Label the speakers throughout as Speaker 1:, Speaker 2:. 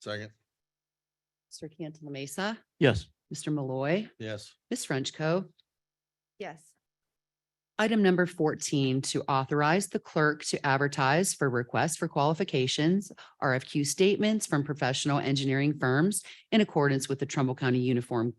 Speaker 1: Second,
Speaker 2: Mr. Cantala Mesa,
Speaker 3: Yes.
Speaker 2: Mr. Malloy,
Speaker 1: yes.
Speaker 2: Ms. Frenchco.
Speaker 4: Yes.
Speaker 2: Item number fourteen, to authorize the clerk to advertise for requests for qualifications, RFQ statements from professional engineering firms in accordance with the Trumbull County Uniform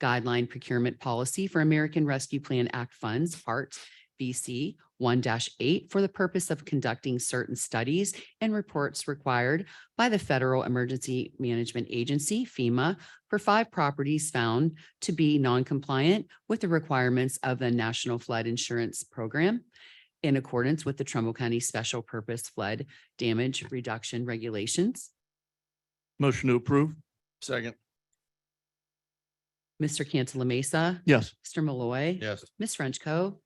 Speaker 2: Guideline Procurement Policy for American Rescue Plan Act Funds, Part BC one eight, for the purpose of conducting certain studies and reports required by the Federal Emergency Management Agency, FEMA, for five properties found to be non-compliant with the requirements of the National Flood Insurance Program in accordance with the Trumbull County Special Purpose Flood Damage Reduction Regulations.
Speaker 3: Motion to approve?
Speaker 1: Second,
Speaker 2: Mr. Cantala Mesa,
Speaker 3: Yes.
Speaker 2: Mr. Malloy.
Speaker 1: yes.
Speaker 2: Ms. Frenchco.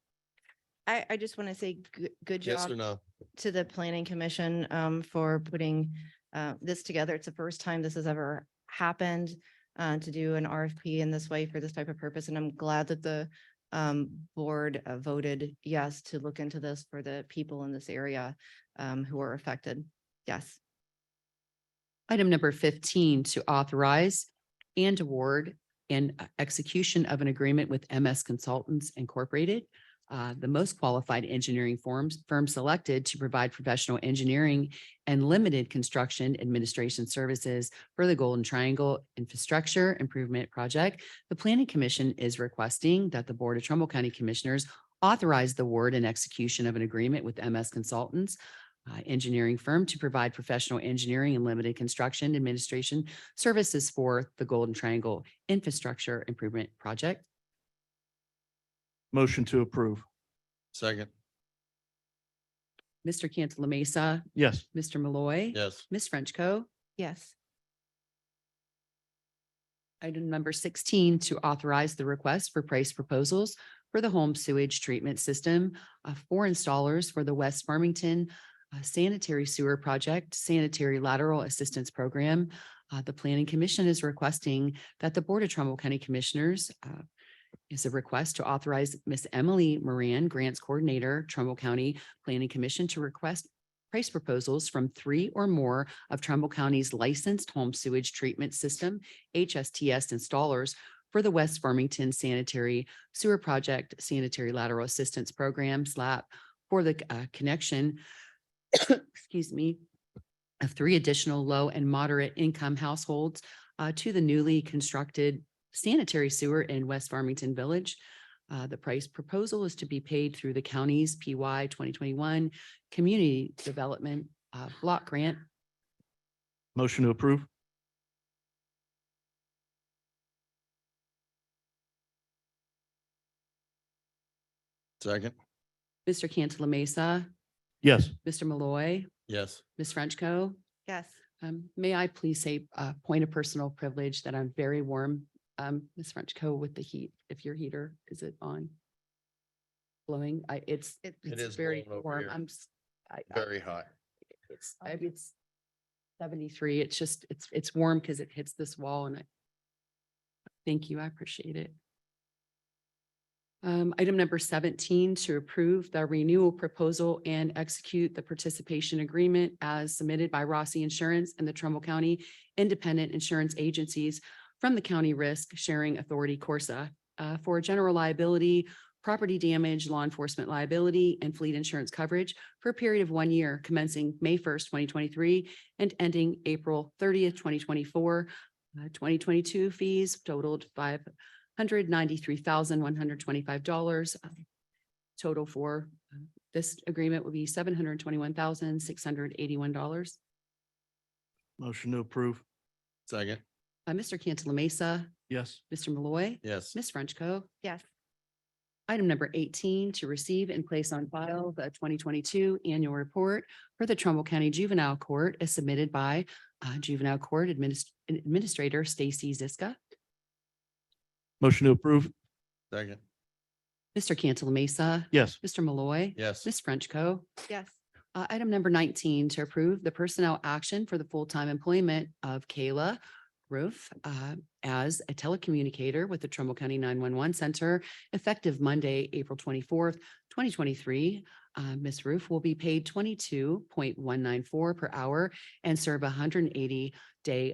Speaker 4: I, I just want to say goo- good
Speaker 1: Yes or
Speaker 4: job
Speaker 1: no?
Speaker 4: to the planning commission um, for putting uh, this together. It's the first time this has ever happened uh, to do an RFP in this way for this type of purpose. And I'm glad that the um, board uh, voted yes to look into this for the people in this area um, who are affected. Yes.
Speaker 2: Item number fifteen, to authorize and award and execution of an agreement with MS Consultants Incorporated, uh, the most qualified engineering firms, firm selected to provide professional engineering and limited construction administration services for the Golden Triangle Infrastructure Improvement Project. The Planning Commission is requesting that the Board of Trumbull County Commissioners authorize the award and execution of an agreement with MS Consultants uh, engineering firm to provide professional engineering and limited construction administration services for the Golden Triangle Infrastructure Improvement Project.
Speaker 3: Motion to approve?
Speaker 1: Second,
Speaker 2: Mr. Cantala Mesa,
Speaker 3: Yes.
Speaker 2: Mr. Malloy.
Speaker 1: yes.
Speaker 2: Ms. Frenchco.
Speaker 4: Yes.
Speaker 2: Item number sixteen, to authorize the request for price proposals for the home sewage treatment system uh, for installers for the West Farmington uh, Sanitary Sewer Project Sanitary Lateral Assistance Program. Uh, The Planning Commission is requesting that the Board of Trumbull County Commissioners uh, is a request to authorize Miss Emily Moran, Grants Coordinator, Trumbull County Planning Commission to request price proposals from three or more of Trumbull County's licensed home sewage treatment system HSTS installers for the West Farmington Sanitary Sewer Project Sanitary Lateral Assistance Program, SLAP, for the uh, connection, excuse me, of three additional low and moderate income households uh, to the newly constructed sanitary sewer in West Farmington Village. Uh, The price proposal is to be paid through the county's PY twenty twenty-one Community Development uh, Block Grant.
Speaker 3: Motion to approve?
Speaker 1: Second,
Speaker 2: Mr. Cantala Mesa,
Speaker 3: Yes.
Speaker 2: Mr. Malloy,
Speaker 1: yes.
Speaker 2: Ms. Frenchco.
Speaker 4: Yes.
Speaker 2: Um, may I please say, uh, point of personal privilege that I'm very warm, um, Ms. Frenchco with the heat, if your heater, is it on? Blowing, I, it's,
Speaker 4: It-
Speaker 2: it's
Speaker 1: is
Speaker 2: very
Speaker 1: blowing over
Speaker 2: warm,
Speaker 1: here.
Speaker 2: I'm, s- I, I-
Speaker 1: Very high.
Speaker 2: it's, I, it's seventy-three, it's just, it's, it's warm because it hits this wall and I thank you, I appreciate it. Um, item number seventeen, to approve the renewal proposal and execute the participation agreement as submitted by Rossi Insurance and the Trumbull County Independent Insurance Agencies from the County Risk Sharing Authority, Corsa, uh, for general liability, property damage, law enforcement liability, and fleet insurance coverage for a period of one year commencing May first, twenty twenty-three and ending April thirtieth, twenty twenty-four. Uh, Twenty twenty-two fees totaled five hundred ninety-three thousand, one hundred twenty-five dollars. Um, Total for uh, this agreement would be seven hundred twenty-one thousand, six hundred eighty-one dollars.
Speaker 3: Motion to approve?
Speaker 1: Second,
Speaker 2: Mr. Cantala Mesa,
Speaker 3: Yes.
Speaker 2: Mr. Malloy,
Speaker 1: yes.
Speaker 2: Ms. Frenchco.
Speaker 4: Yes.
Speaker 2: Item number eighteen, to receive and place on file the twenty twenty-two annual report for the Trumbull County Juvenile Court as submitted by uh, Juvenile Court Adminis- Administrator Stacy Ziska.
Speaker 3: Motion to approve?
Speaker 1: Second,
Speaker 2: Mr. Cantala Mesa,
Speaker 3: Yes.
Speaker 2: Mr. Malloy,
Speaker 1: yes.
Speaker 2: Ms. Frenchco.
Speaker 4: Yes.
Speaker 2: Uh, item number nineteen, to approve the personnel action for the full-time employment of Kayla Roof uh, as a telecommunicator with the Trumbull County nine-one-one center effective Monday, April twenty-fourth, twenty twenty-three. Uh, Ms. Roof will be paid twenty-two point one nine four per hour and serve a hundred and eighty day